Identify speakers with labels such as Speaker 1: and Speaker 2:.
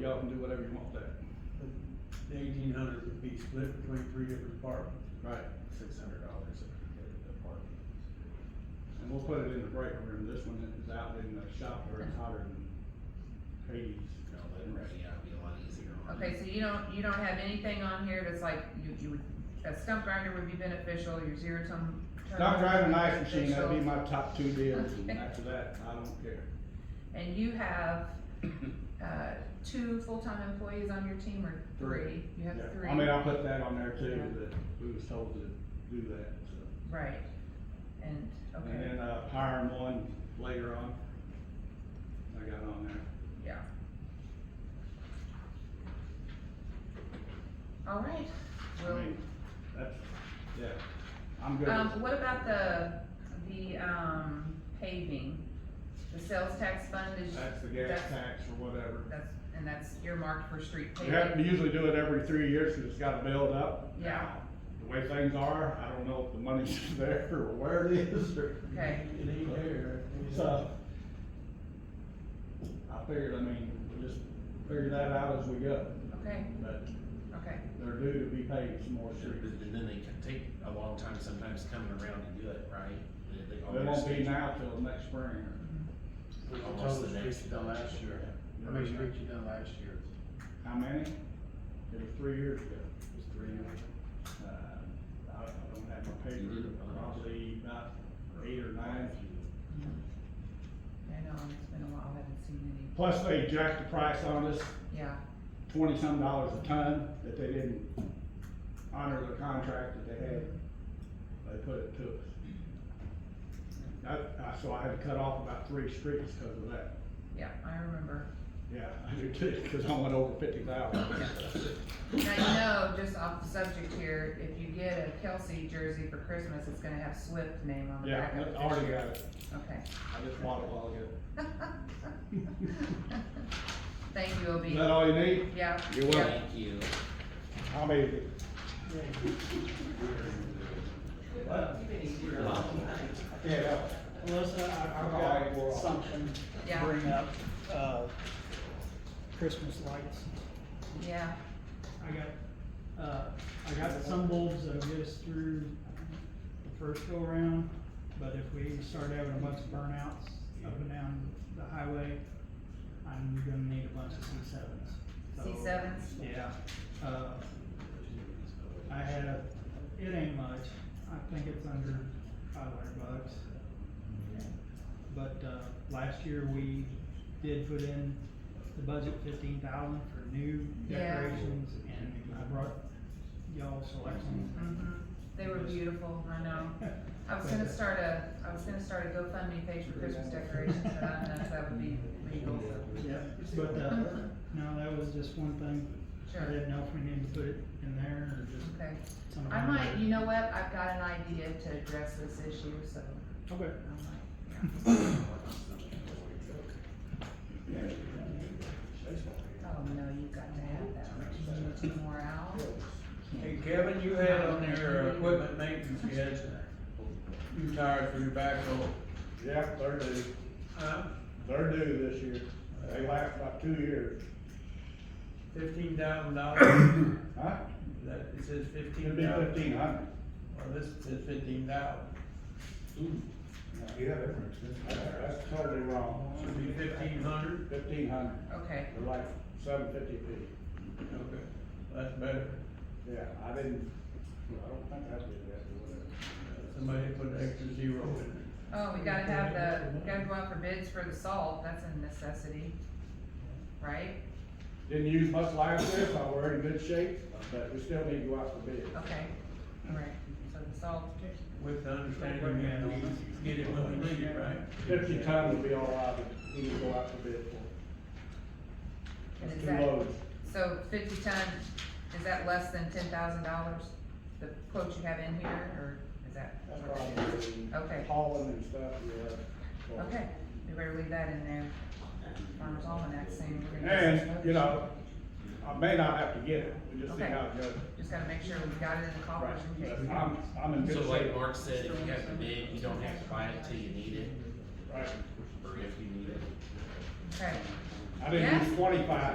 Speaker 1: y'all can do whatever you want there.
Speaker 2: The eighteen hundred would be split between three different departments.
Speaker 1: Right.
Speaker 3: six hundred dollars if we get an apartment.
Speaker 1: And we'll put it in the break room, this one is out in the shop where it's hotter than Hades.
Speaker 3: No, then right, yeah, it'd be a lot easier on.
Speaker 4: Okay, so you don't, you don't have anything on here that's like, you, you would, a stump grinder would be beneficial, your zero turn.
Speaker 1: Stop driving an ice machine,
Speaker 4: beneficial.
Speaker 1: that'd be my top two deals, and
Speaker 4: Okay.
Speaker 1: after that, I don't care.
Speaker 4: And you have, uh, two full-time employees on your team or three? You have
Speaker 1: Yeah.
Speaker 4: three,
Speaker 1: I mean, I'll put that on there too,
Speaker 4: Yeah.
Speaker 1: that we was told to do that, so.
Speaker 4: right, and,
Speaker 1: And
Speaker 4: okay,
Speaker 1: then, uh, hiring one later on, I got on there.
Speaker 4: yeah. All right,
Speaker 1: I
Speaker 4: well.
Speaker 1: mean, that's, yeah, I'm good.
Speaker 4: Um, what about the, the, um, paving? The sales tax fund is,
Speaker 1: That's the gas
Speaker 4: that's-
Speaker 1: tax or whatever.
Speaker 4: that's, and that's earmarked for street
Speaker 1: You have, we
Speaker 4: paving?
Speaker 1: usually do it every three years, cause it's gotta build up.
Speaker 4: Yeah.
Speaker 1: The way things are, I don't know if the money's there or where it is or.
Speaker 4: Okay,
Speaker 2: It ain't there.
Speaker 1: So, I figured, I mean, we just figure that out as we go,
Speaker 4: okay,
Speaker 1: but
Speaker 4: okay,
Speaker 1: they're due to be paid some more streets.
Speaker 3: And then they can take a long time sometimes coming around to do it, right? They- they
Speaker 1: It
Speaker 3: almost-
Speaker 1: won't be now till next spring
Speaker 5: We were
Speaker 3: Almost
Speaker 5: told
Speaker 3: the
Speaker 5: the streets
Speaker 3: next
Speaker 5: you done
Speaker 3: budget.
Speaker 5: last year. How
Speaker 1: or.
Speaker 5: many streets you done last year?
Speaker 1: How many? It was three years ago.
Speaker 5: It was three years.
Speaker 1: Uh, I I don't have my
Speaker 3: You
Speaker 1: paper,
Speaker 3: did it.
Speaker 1: probably about eight or nine.
Speaker 4: I know, it's been a while, I haven't seen
Speaker 1: Plus they jacked the price on us
Speaker 4: any, yeah,
Speaker 1: twenty-some dollars a ton that they didn't honor the contract that they had. They put it to us. I, I, so I had to cut off about three streets because of that.
Speaker 4: yeah, I remember.
Speaker 1: Yeah, I did too, because I went over fifty thousand.
Speaker 4: Now, you know, just off the subject here, if you get a Kelsey jersey for Christmas, it's gonna have Swift name on the
Speaker 1: Yeah,
Speaker 4: back of it.
Speaker 1: I already got it.
Speaker 4: Okay.
Speaker 1: I just bought it a while ago.
Speaker 4: Thank you,
Speaker 1: Is
Speaker 4: Obie.
Speaker 1: that all you need?
Speaker 4: Yeah.
Speaker 1: You're
Speaker 4: yeah.
Speaker 1: welcome.
Speaker 3: Thank you.
Speaker 1: How many? Yeah.
Speaker 6: Melissa, I- I've
Speaker 1: Okay, we're
Speaker 6: got
Speaker 1: off.
Speaker 6: something to
Speaker 4: Yeah.
Speaker 6: bring up, uh, Christmas lights.
Speaker 4: Yeah,
Speaker 6: I got, uh, I got some bulbs that'll get us through the first go around, but if we start having a bunch of burnouts up and down the highway, I'm gonna need a bunch of C sevens.
Speaker 4: C sevens?
Speaker 6: Yeah, uh, I had a, it ain't much, I think it's under five hundred bucks. But, uh, last year we did put in the budget fifteen thousand for new
Speaker 4: Yeah.
Speaker 6: decorations and I brought y'all selections.
Speaker 4: hmm They were beautiful, I know. I was gonna start a, I was gonna start a GoFundMe page for Christmas decorations, but I don't know if that would be legal, so.
Speaker 6: Yeah, but, uh, no, that was just one thing, I
Speaker 4: Sure,
Speaker 6: didn't know if we needed to put it in there or just
Speaker 4: okay.
Speaker 6: something.
Speaker 4: I might, you know what, I've got an idea to address this issue, so
Speaker 6: Okay.
Speaker 4: I might. Oh, no, you've got to have that, Richie, you need more out.
Speaker 2: Hey Kevin, you had on your equipment maintenance, you had two tires for your backhoe,
Speaker 1: Yeah, they're due.
Speaker 2: huh?
Speaker 1: They're due this year. They last about two years.
Speaker 2: Fifteen thousand dollars,
Speaker 1: Huh?
Speaker 2: that, it says fifteen
Speaker 1: It'd be
Speaker 2: thousand.
Speaker 1: fifteen hundred.
Speaker 2: Or this says fifteen thousand,
Speaker 1: You have it. That's totally wrong.
Speaker 2: should be fifteen hundred,
Speaker 1: Fifteen hundred.
Speaker 4: Okay,
Speaker 1: They're like seven fifty feet.
Speaker 2: okay, that's better,
Speaker 1: Yeah, I didn't, I don't think I did that or whatever.
Speaker 2: somebody put an extra zero in there.
Speaker 4: oh, we gotta have the, we gotta go out for bids for the salt, that's a necessity, right?
Speaker 1: Didn't use much last year, so we're in good shape, but we still need to go out for bid.
Speaker 4: Okay, alright, so the salt,
Speaker 2: With the understanding that we get it when we need it, right?
Speaker 1: Fifty ton would be all right, but we need to go out for bid for.
Speaker 4: And
Speaker 1: That's
Speaker 4: is
Speaker 1: two
Speaker 4: that-
Speaker 1: loads.
Speaker 4: so fifty ton, is that less than ten thousand dollars? The quote you have in here, or is that?
Speaker 1: That's probably
Speaker 4: Okay.
Speaker 1: hauling and stuff, yeah.
Speaker 4: Okay, we better leave that in there. Farmer's Almanac soon. we're gonna get some
Speaker 1: And, you know, I may not have to get it, we just see
Speaker 4: Okay.
Speaker 1: how it goes.
Speaker 4: Just gotta make sure we got it in the
Speaker 1: Right,
Speaker 4: coffers in
Speaker 1: but
Speaker 4: case.
Speaker 1: I'm, I'm in good
Speaker 3: So like
Speaker 1: shape.
Speaker 3: Mark said, if you have the bid, you don't have to buy it till you need it,
Speaker 1: Right.
Speaker 3: or if you need it.
Speaker 4: Okay.
Speaker 1: I didn't use twenty-five